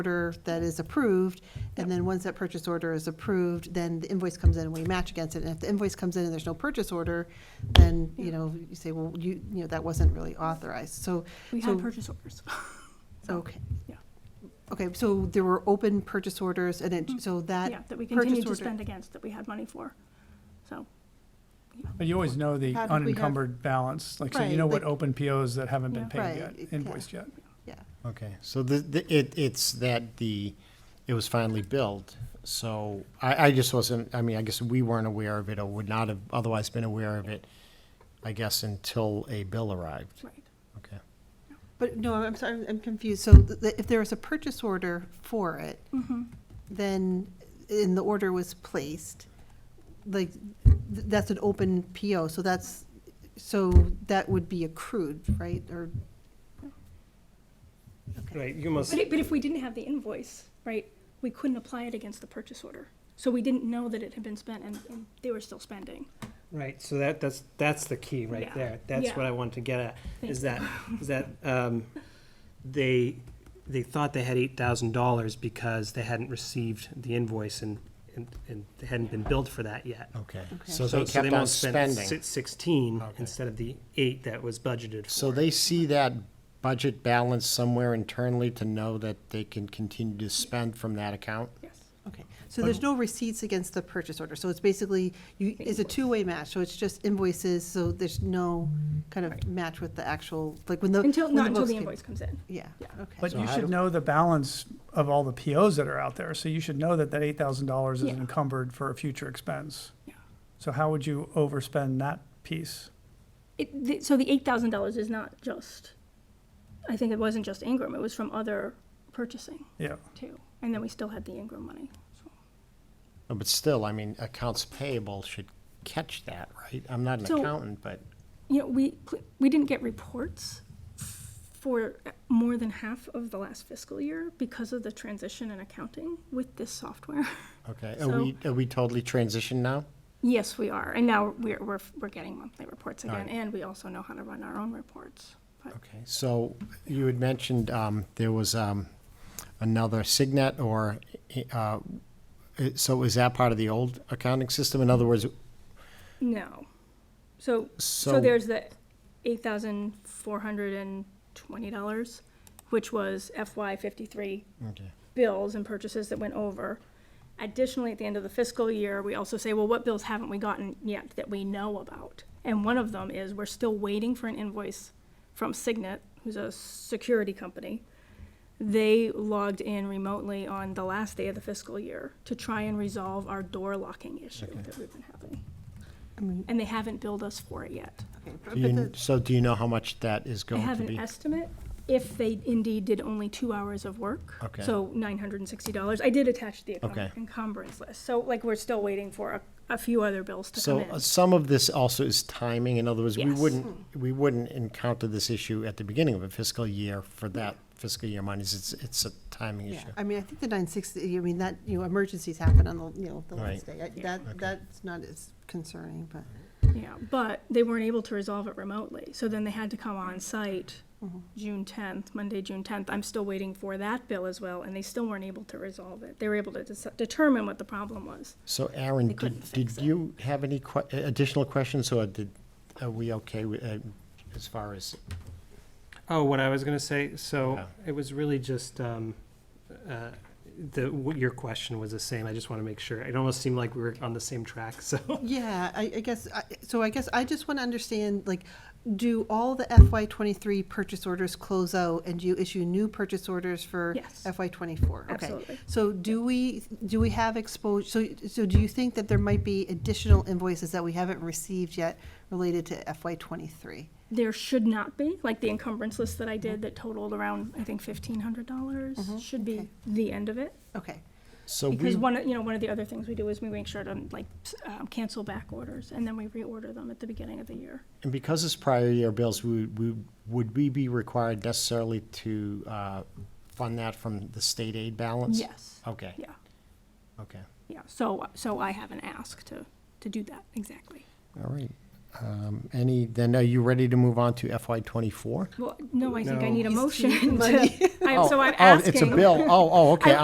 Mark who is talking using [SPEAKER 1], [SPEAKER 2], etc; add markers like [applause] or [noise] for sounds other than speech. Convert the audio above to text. [SPEAKER 1] order that is approved, and then once that purchase order is approved, then the invoice comes in and we match against it. And if the invoice comes in and there's no purchase order, then, you know, you say, well, you, you know, that wasn't really authorized, so.
[SPEAKER 2] We
[SPEAKER 1] so-
[SPEAKER 2] had purchase orders.
[SPEAKER 1] Okay.
[SPEAKER 2] yeah.
[SPEAKER 1] Okay, so there were open purchase orders, and it, so that.
[SPEAKER 2] Mm, Yeah, that we
[SPEAKER 1] purchase
[SPEAKER 2] continued to
[SPEAKER 1] order-
[SPEAKER 2] spend against, that we had money for. So,
[SPEAKER 3] But you always know the
[SPEAKER 1] How did we have-
[SPEAKER 3] unencumbered balance, like, so
[SPEAKER 1] Right,
[SPEAKER 3] you know what
[SPEAKER 1] like-
[SPEAKER 3] open POs that haven't been
[SPEAKER 1] Yeah.
[SPEAKER 3] paid
[SPEAKER 1] Right,
[SPEAKER 3] yet,
[SPEAKER 1] yeah.
[SPEAKER 3] invoiced yet.
[SPEAKER 1] Yeah,
[SPEAKER 4] Okay, so the, the, it, it's that the, it was finally built, so I, I just wasn't, I mean, I guess we weren't aware of it or would not have otherwise been aware of it, I guess, until a bill arrived.
[SPEAKER 2] right.
[SPEAKER 4] Okay.
[SPEAKER 1] but no, I'm sorry, I'm- I'm confused. So th- th- if there was a purchase order for it,
[SPEAKER 2] Mm-hmm.
[SPEAKER 1] then, and the order was placed, like, th- that's an open PO, so that's, so that would be accrued, right, or? Okay.
[SPEAKER 5] Right, you must,
[SPEAKER 2] But it, but if we didn't have the invoice, right, we couldn't apply it against the purchase order. So we didn't know that it had been spent and, and they were still spending.
[SPEAKER 5] right, so that, that's, that's the key right
[SPEAKER 2] Yeah.
[SPEAKER 5] there. That's
[SPEAKER 2] Yeah.
[SPEAKER 5] what I wanted to get at,
[SPEAKER 2] Thank
[SPEAKER 5] is that, is that, um, they, they thought they had eight thousand dollars because they hadn't received the invoice and, and, and they hadn't been billed for that yet.
[SPEAKER 4] Okay,
[SPEAKER 1] Okay.
[SPEAKER 4] so they kept on
[SPEAKER 5] must spend
[SPEAKER 4] spending.
[SPEAKER 5] si- Sixteen
[SPEAKER 4] Okay.
[SPEAKER 5] instead of the eight that was budgeted for.
[SPEAKER 4] So they see that budget balance somewhere internally to know that they can continue to spend from that account?
[SPEAKER 2] Yes.
[SPEAKER 1] Okay, so there's no receipts against the purchase order, so it's basically, you, it's a two-way match, so it's just invoices, so there's no kind of match with the actual, like, when the.
[SPEAKER 2] Until,
[SPEAKER 1] when
[SPEAKER 2] not until
[SPEAKER 1] books
[SPEAKER 2] the
[SPEAKER 1] came-
[SPEAKER 2] invoice comes in.
[SPEAKER 1] Yeah,
[SPEAKER 2] Yeah.
[SPEAKER 1] okay,
[SPEAKER 3] But
[SPEAKER 4] So
[SPEAKER 3] you
[SPEAKER 4] how
[SPEAKER 3] should
[SPEAKER 4] do-
[SPEAKER 3] know the balance of all the POs that are out there, so you should know that that eight thousand dollars is
[SPEAKER 2] Yeah.
[SPEAKER 3] encumbered for a future expense.
[SPEAKER 2] Yeah.
[SPEAKER 3] So how would you overspend that piece?
[SPEAKER 2] It, the, so the eight thousand dollars is not just, I think it wasn't just Ingram, it was from other purchasing
[SPEAKER 3] Yeah,
[SPEAKER 2] too. And then we still had the Ingram money, so.
[SPEAKER 4] No, But still, I mean, accounts payable should catch that, right? I'm not an
[SPEAKER 2] So-
[SPEAKER 4] accountant, but,
[SPEAKER 2] you know, we, we didn't get reports for more than half of the last fiscal year because of the transition in accounting with this software. [laughs]
[SPEAKER 4] okay,
[SPEAKER 2] So-
[SPEAKER 4] are we, are we totally transitioned now?
[SPEAKER 2] yes, we are, and now we're, we're, we're getting monthly reports again,
[SPEAKER 4] Alright.
[SPEAKER 2] and we also know how to run our own reports. But
[SPEAKER 4] Okay, so you had mentioned um, there was um, another Signet or, uh, i- so is that part of the old accounting system? In other words,
[SPEAKER 2] no, so so,
[SPEAKER 4] So-
[SPEAKER 2] there's the eight thousand four hundred and twenty dollars, which was FY fifty three
[SPEAKER 4] okay,
[SPEAKER 2] bills and purchases that went over. Additionally, at the end of the fiscal year, we also say, well, what bills haven't we gotten yet that we know about? And one of them is we're still waiting for an invoice from Signet, who's a security company. They logged in remotely on the last day of the fiscal year to try and resolve our door locking issue that we've been having. And they haven't billed us for it yet.
[SPEAKER 1] okay.
[SPEAKER 4] Do
[SPEAKER 1] But
[SPEAKER 4] you-
[SPEAKER 1] the-
[SPEAKER 4] so do you know how much that is
[SPEAKER 2] I
[SPEAKER 4] going
[SPEAKER 2] have
[SPEAKER 4] to
[SPEAKER 2] an
[SPEAKER 4] be?
[SPEAKER 2] estimate if they indeed did only two hours of work.
[SPEAKER 4] Okay.
[SPEAKER 2] So nine hundred and sixty dollars. I did attach the encum-
[SPEAKER 4] Okay.
[SPEAKER 2] encumbrance list. So like we're still waiting for a, a few other bills to
[SPEAKER 4] So
[SPEAKER 2] come
[SPEAKER 4] uh,
[SPEAKER 2] in.
[SPEAKER 4] some of this also is timing, in other words, we
[SPEAKER 2] Yes.
[SPEAKER 4] wouldn't, we wouldn't encounter this issue at the beginning of a fiscal year for that fiscal year monies, it's, it's a timing
[SPEAKER 1] Yeah,
[SPEAKER 4] issue.
[SPEAKER 1] I mean, I think the nine sixty, I mean, that, you know, emergencies happen on the, you know, the last
[SPEAKER 4] Right.
[SPEAKER 1] day. I- That, that's not as concerning, but,
[SPEAKER 2] Yeah, but they weren't able to resolve it remotely. So then they had to come on site June tenth, Monday, June tenth. I'm still waiting for that bill as well, and they still weren't able to resolve it. They were able to dis- determine what the problem was.
[SPEAKER 4] So Aaron,
[SPEAKER 2] They
[SPEAKER 4] did,
[SPEAKER 2] couldn't fix
[SPEAKER 4] did
[SPEAKER 2] it.
[SPEAKER 4] you have any que- additional questions, or did, are we okay with, uh, as far as
[SPEAKER 5] Oh, what I was gonna say, so
[SPEAKER 4] Yeah.
[SPEAKER 5] it was really just, um, uh, the, what your question was the same, I just wanna make sure. It almost seemed like we were on the same track, [laughs] so.
[SPEAKER 1] yeah, I, I guess, I- so I guess I just want to understand, like, do all the FY twenty-three purchase orders close out and do you issue new purchase orders for
[SPEAKER 2] Yes.
[SPEAKER 1] FY twenty-four?
[SPEAKER 2] Absolutely.
[SPEAKER 1] So do we, do we have exposure, so, so do you think that there might be additional invoices that we haven't received yet related to FY twenty-three?
[SPEAKER 2] there should not be, like the encumbrance list that I
[SPEAKER 4] Mm-hmm.
[SPEAKER 2] did that totaled around, I think fifteen hundred dollars, should be
[SPEAKER 1] okay.
[SPEAKER 2] the end of it.
[SPEAKER 1] Okay,
[SPEAKER 4] So we,
[SPEAKER 2] Because one, of you know, one of the other things we do is we make sure to like s- um, cancel back orders and then we reorder them at the beginning of the year.
[SPEAKER 4] and because it's prior year bills, we, we, would we be required necessarily to, uh, fund that from the state aid balance?
[SPEAKER 2] Yes,
[SPEAKER 4] Okay,
[SPEAKER 2] yeah,
[SPEAKER 4] okay,
[SPEAKER 2] yeah. So, so I haven't asked to, to do that, exactly.
[SPEAKER 4] all right. Um, Any, then are you ready to move on to FY twenty-four?
[SPEAKER 2] Well, no, I think I
[SPEAKER 5] No.
[SPEAKER 2] need a
[SPEAKER 1] He's-
[SPEAKER 2] motion.
[SPEAKER 1] money.
[SPEAKER 2] to- I- So I'm
[SPEAKER 4] Oh,
[SPEAKER 2] asking. [laughs]
[SPEAKER 4] It's a bill. Oh, oh, okay.